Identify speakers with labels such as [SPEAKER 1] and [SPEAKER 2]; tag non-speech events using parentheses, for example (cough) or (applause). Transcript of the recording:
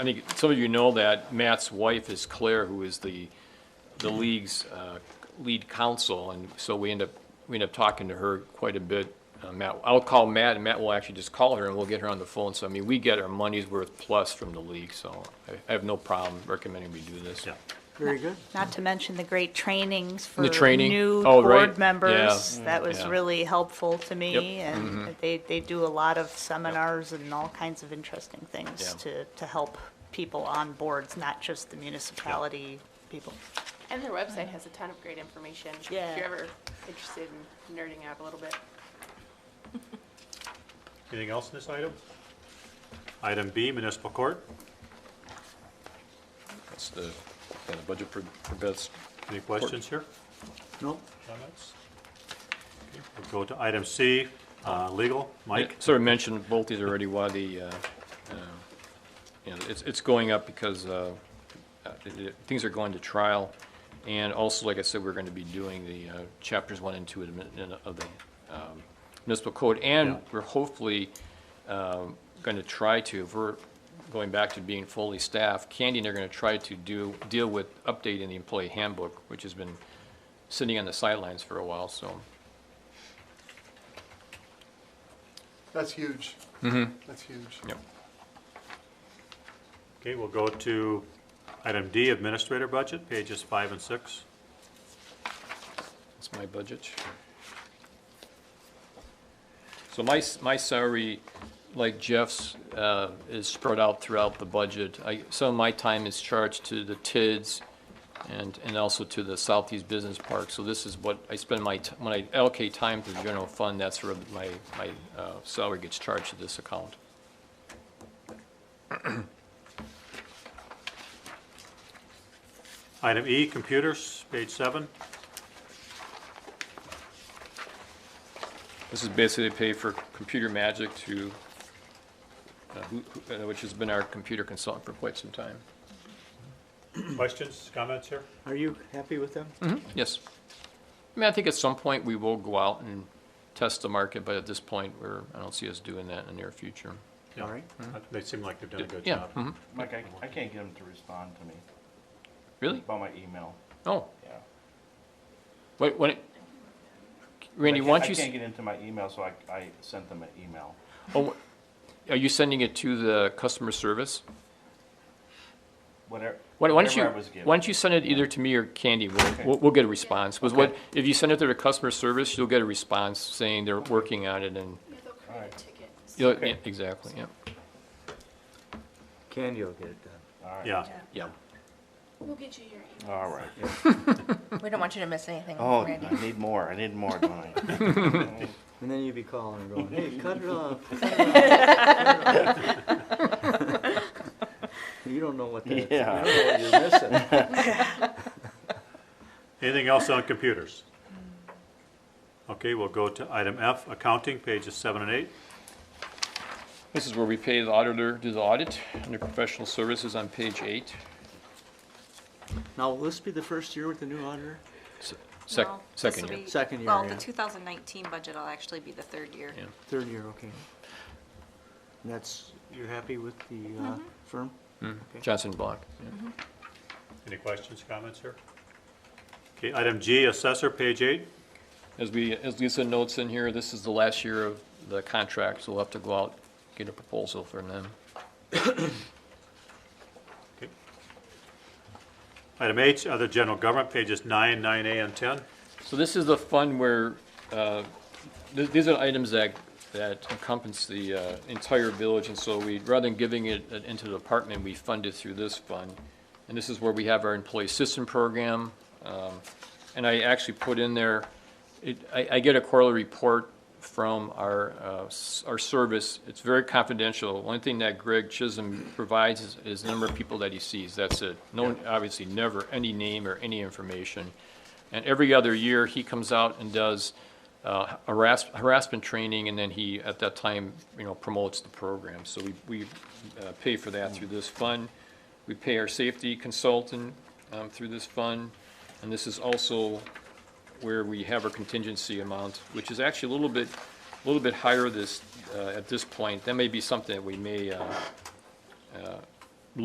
[SPEAKER 1] I think some of you know that Matt's wife is Claire, who is the, the league's uh, lead counsel, and so we end up, we end up talking to her quite a bit. Uh, Matt, I'll call Matt, and Matt will actually just call her, and we'll get her on the phone, so I mean, we get our money's worth plus from the league, so I- I have no problem recommending we do this.
[SPEAKER 2] Yeah.
[SPEAKER 3] Very good.
[SPEAKER 4] Not to mention the great trainings for
[SPEAKER 1] training?
[SPEAKER 4] new
[SPEAKER 1] Oh, right.
[SPEAKER 4] board members.
[SPEAKER 1] Yeah.
[SPEAKER 4] That was
[SPEAKER 1] Yeah.
[SPEAKER 4] really helpful to me,
[SPEAKER 1] Yep. Mm-hmm.
[SPEAKER 4] and they, they do a lot of seminars and all kinds of interesting things
[SPEAKER 1] Yeah.
[SPEAKER 4] to, to help people on boards, not just the municipality people.
[SPEAKER 5] And their website has a ton of great information.
[SPEAKER 4] Yeah.
[SPEAKER 5] If you're ever interested in nerding out a little bit.
[SPEAKER 2] Anything else in this item? Item B, municipal court.
[SPEAKER 1] That's the, kind of budget for, for best.
[SPEAKER 2] Any questions here?
[SPEAKER 3] No,
[SPEAKER 2] Comments? Okay, We'll go to item C, uh, legal. Mike?
[SPEAKER 1] Sort of mentioned both these already, why the, uh, uh, you know, it's, it's going up because uh, uh, th- th- things are going to trial. And also, like I said, we're going to be doing the uh, chapters one and two of the min- of the um, municipal code. And
[SPEAKER 2] Yeah.
[SPEAKER 1] we're hopefully um, going to try to, if we're going back to being fully staffed, Candy and I are going to try to do, deal with updating the employee handbook, which has been sitting on the sidelines for a while, so.
[SPEAKER 6] That's huge. That's huge.
[SPEAKER 1] Yep.
[SPEAKER 2] Okay, we'll go to item D, administrator budget, pages five and six.
[SPEAKER 1] That's my budget. So my, s- my salary, like Jeff's, uh, is spread out throughout the budget. I, some of my time is charged to the TIDS and, and also to the Southeast Business Park. So this is what I spend my, t- when I allocate time to the general fund, that's where my, my, uh, salary gets charged to this account.
[SPEAKER 2] Item E, computers, page
[SPEAKER 3] (clears throat)
[SPEAKER 2] seven.
[SPEAKER 1] This is basically to pay for computer magic to, uh, who, who- uh, which has been our computer consultant for quite some time.
[SPEAKER 2] Questions, comments here?
[SPEAKER 3] are you happy with them?
[SPEAKER 1] Yes. I mean, I think at some point we will go out and test the market, but at this point, we're, I don't see us doing that in the near future.
[SPEAKER 2] Yeah. Uh,
[SPEAKER 3] All right.
[SPEAKER 2] They seem like they've done a good
[SPEAKER 1] Yeah,
[SPEAKER 2] job.
[SPEAKER 1] mhm.
[SPEAKER 7] Mike, I, I can't get him to respond to me
[SPEAKER 1] really?
[SPEAKER 7] about my email,
[SPEAKER 1] Oh,
[SPEAKER 7] yeah.
[SPEAKER 1] wait, what, Randy,
[SPEAKER 7] I
[SPEAKER 1] why
[SPEAKER 7] can't-
[SPEAKER 1] don't you,
[SPEAKER 7] I can't
[SPEAKER 1] s-
[SPEAKER 7] get into my email, so I, I sent them an email.
[SPEAKER 1] oh, are you sending it to the customer service?
[SPEAKER 7] Whatever,
[SPEAKER 1] Why why don't you,
[SPEAKER 7] whatever I was
[SPEAKER 1] why
[SPEAKER 7] given.
[SPEAKER 1] don't you send it either to me or Candy? We'll, we'll, we'll get a response. Because what,
[SPEAKER 7] Okay.
[SPEAKER 1] if you send it to the customer service, you'll get a response saying they're working on it and, you'll- yeah, exactly, yeah,
[SPEAKER 3] Candy will get it done.
[SPEAKER 2] Yeah,
[SPEAKER 1] yeah.
[SPEAKER 8] We'll get you your email.
[SPEAKER 7] All right.
[SPEAKER 9] We don't want you to miss anything,
[SPEAKER 7] Oh,
[SPEAKER 9] Randy.
[SPEAKER 7] I need more, I need more, don't I?
[SPEAKER 3] And then you'd be calling and going, hey, cut it off. You don't know what that, you
[SPEAKER 7] Yeah.
[SPEAKER 3] don't know what you're missing. (laughs)
[SPEAKER 2] anything else on computers? Okay, we'll go to item F, accounting, pages seven and eight.
[SPEAKER 1] This is where we pay the auditor, do the audit, under professional services on page eight.
[SPEAKER 3] Now, will this be the first year with the new auditor?
[SPEAKER 1] Sec-
[SPEAKER 10] No, this
[SPEAKER 1] second
[SPEAKER 10] will
[SPEAKER 1] year.
[SPEAKER 10] be-
[SPEAKER 3] Second year,
[SPEAKER 10] Well, the
[SPEAKER 3] yeah.
[SPEAKER 10] 2019 budget will actually be the third year.
[SPEAKER 1] Yeah.
[SPEAKER 3] Third year, okay. And that's, you're happy with the uh, firm?
[SPEAKER 1] Johnson Block.
[SPEAKER 2] Any questions, comments here? Okay, item G, assessor, page eight.
[SPEAKER 1] As we, as Lisa notes in here, this is the last year of the contract, so we'll have to go out, get a proposal from them.
[SPEAKER 2] Okay. Item H, other general government, pages nine, nine A, and ten.
[SPEAKER 1] So this is the fund where, uh, th- these are items that, that encompass the uh, entire village, and so we, rather than giving it it into the department, we fund it through this fund. And this is where we have our employee assistance program, um, and I actually put in there, it, I, I get a quarterly report from our, uh, s- our service, it's very confidential. One thing that Greg Chisholm provides is, is the number of people that he sees, that's it. No, obviously, never any name or any information. And every other year, he comes out and does uh, harass- harassment training, and then he, at that time, you know, promotes the program. So we, we uh, pay for that through this fund. We pay our safety consultant um, through this fund, and this is also where we have our contingency amount, which is actually a little bit, a little bit higher this, uh, at this point. That may be something that we may uh, uh,